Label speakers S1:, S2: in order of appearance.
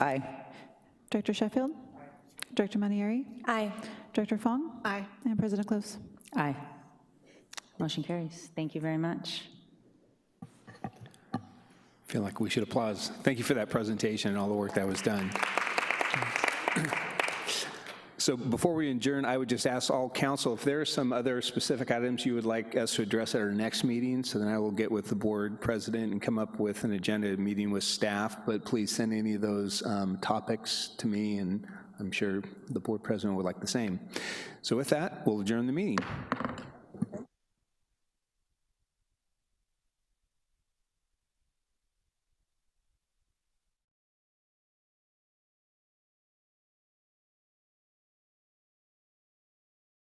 S1: Aye.
S2: Director Sheffield? Director Manieri?
S3: Aye.
S2: Director Fong?
S3: Aye.
S2: And President Close?
S1: Aye. Motion carries. Thank you very much.
S4: Feel like we should applause. Thank you for that presentation and all the work that was done. So before we adjourn, I would just ask all council if there are some other specific items you would like us to address at our next meeting, so then I will get with the board president and come up with an agenda, meeting with staff, but please send any of those um, topics to me, and I'm sure the board president would like the same. So with that, we'll adjourn the meeting.